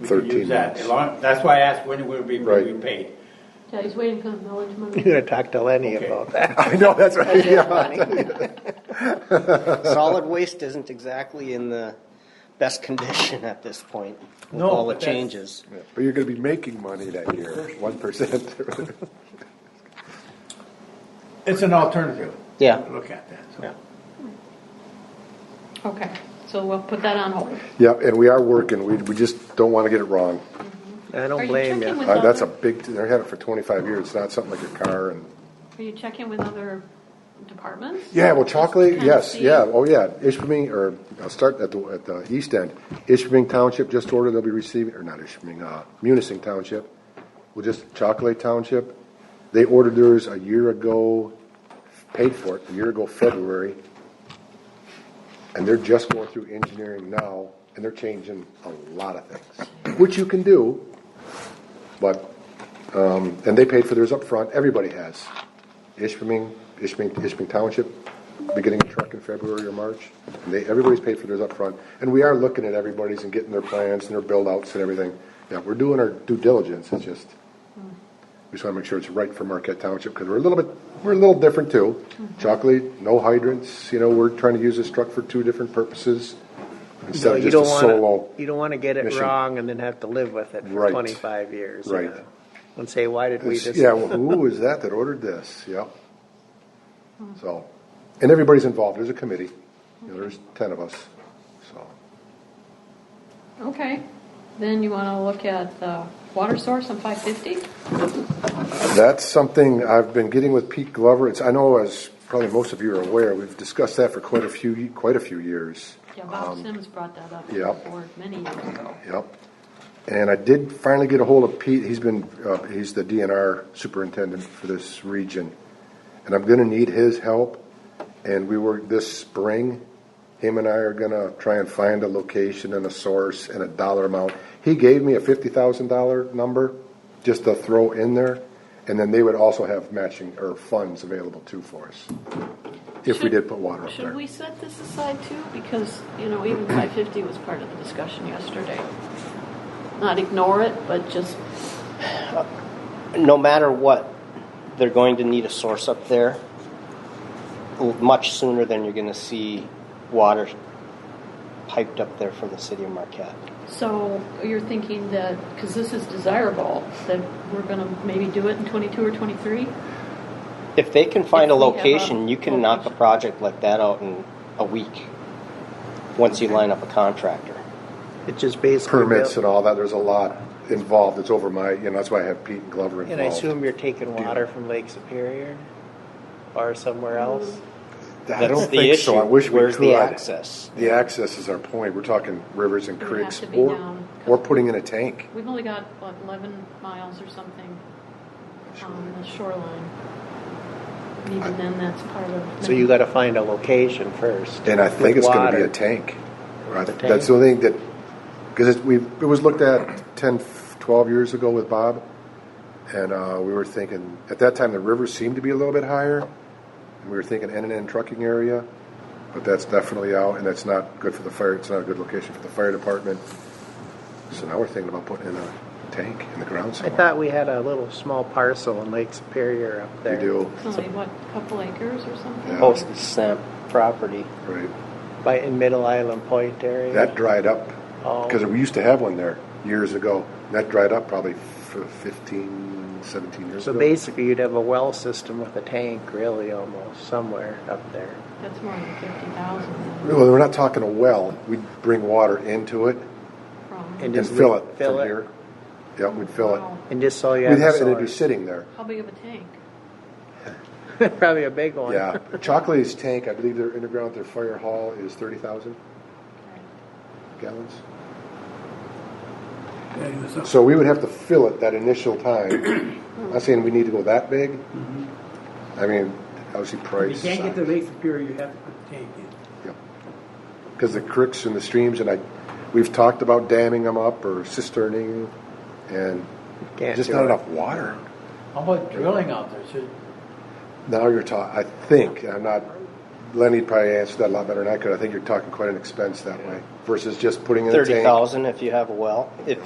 We can 13 use that. months. As long- That's why I asked when it will be Right. be paid. Yeah, he's waiting for the millage You're money. gonna talk to Lenny Okay. about that. I know, that's right, Budget yeah. money. Solid waste isn't exactly in the best condition at this point with No, all the but that's- changes. But you're gonna be making money that year, one percent. It's an alternative. Yeah. Look at that. Yeah. so. Okay, so we'll put that on hold. Yeah, and we are working, we, we just don't wanna get it wrong. I Are don't you blame checking you. with Uh, That's a other- big, they had it for twenty-five years, it's not something like your car and, Are you checking with other departments? yeah, well, Just chocolate, to kinda yes, see. yeah, oh, yeah, Ishpeming, or, I'll start at the, at the east end. Ishpeming Township just ordered, they'll be receiving, or not Ishpeming, uh, Munising Township, well, just Chocolate Township. They ordered theirs a year ago, paid for it, a year ago February. And they're just going through engineering now, and they're changing a lot of things, which you can do. But, um, and they paid for theirs up front. everybody has. Ishpeming, Ishpeming, Ishpeming Township, beginning of truck in February or March, and they, everybody's paid for theirs up front. And we are looking at everybody's and getting their plans and their build-outs and everything. Yeah, we're doing our due diligence, it's just, we just wanna make sure it's right for Marquette Township, because we're a little bit, we're a little different too. Chocolate, no hydrants, you know, we're trying to use this truck for two different purposes, So instead of you just a don't solo. wanna, you don't wanna get it mission. wrong and then have to live with it for Right. twenty-five years. you Right. know, And say, why did we It's- just? Yeah, well, who is that that ordered this? Yep. So, and everybody's involved. There's a committee. You know, there's ten of us. So, Okay, then you wanna look at the water source on five fifty? that's something I've been getting with Pete Glover. It's, I know as probably most of you are aware, we've discussed that for quite a few, quite a few years. Yeah, Bob Sims brought that up Um, yeah. before many years ago. Yep. And I did finally get a hold of Pete. He's been, uh, he's the DNR superintendent for this region. And I'm gonna need his help. And we were, this spring, him and I are gonna try and find a location and a source and a dollar amount. He gave me a fifty thousand dollar number just to throw in there. And then they would also have matching, or funds available too for us. If we Should- did put water up Should there. we set this aside too? Because, you know, even five fifty was part of the discussion yesterday. Not ignore it, but just, No matter what, they're going to need a source up there l- much sooner than you're gonna see water piped up there from the city of Marquette. so you're thinking that, cause this is desirable, that we're gonna maybe do it in twenty-two or twenty-three? If they can find a If we have a location, you can knock a location. project like that out in a week, once you line up a contractor. It's just basically. Permits built- and all that, there's a lot involved. It's over my, you know, that's why I have Pete and Glover involved. And I assume you're taking water from Lake Superior or somewhere Mm-hmm. else? I That's don't the think issue. so. I wish we Where's could. the access? The access is our point. We're talking rivers and It would creeks have to be or, down. or putting in a tank. We've only got, what, eleven miles or something on the shoreline. And Even then, that's part of. So you gotta find a location first. And I think with it's gonna be water. a tank. Right. The That's the only thing that, because it, we, it was looked at 10, 12 years ago with Bob. And, uh, we were thinking, at that time, the river seemed to be a little bit higher. And we were thinking N and N trucking area, but that's definitely out and that's not good for the fire. It's not a good location for the fire department. So now we're thinking about putting in a tank in the ground I somewhere. thought we had a little small parcel in Lake Superior up We there. do, It's only, what, a couple acres or something? Yeah. Oh. Postage stamp property. right. By, in Middle Island Point area. That dried up, Oh. because we used to have one there years ago. And that dried up probably f- 15, 17 years So ago. basically, you'd have a well system with a tank, really, almost, somewhere up there. That's more than fifty thousand Well, we're not talking a well. We'd bring water into it from, And- and Just fill leave- it fill from it. here. Yeah, we'd fill Wow. it. And just so you We'd have have a it, it'd be source. sitting there. how big of a tank? Probably a big one. Yeah. Chocolate's tank, I believe their underground, their fire hall is 30,000 gallons. So we would have to fill it that initial time. I'm not saying we need to go that big. I mean, obviously If price. you can't get to size. Lake Superior, you have to put the tank in. Because the creeks and the streams, and I, we've talked about damming them up or cisterning, and Can't just do not it. enough water. How about drilling out there? Should, Now you're talking, I think, I'm not, Lenny'd probably answer that a lot better than I could, I think you're talking quite an expense that way, versus just putting in a tank. Thirty thousand if you have a well. If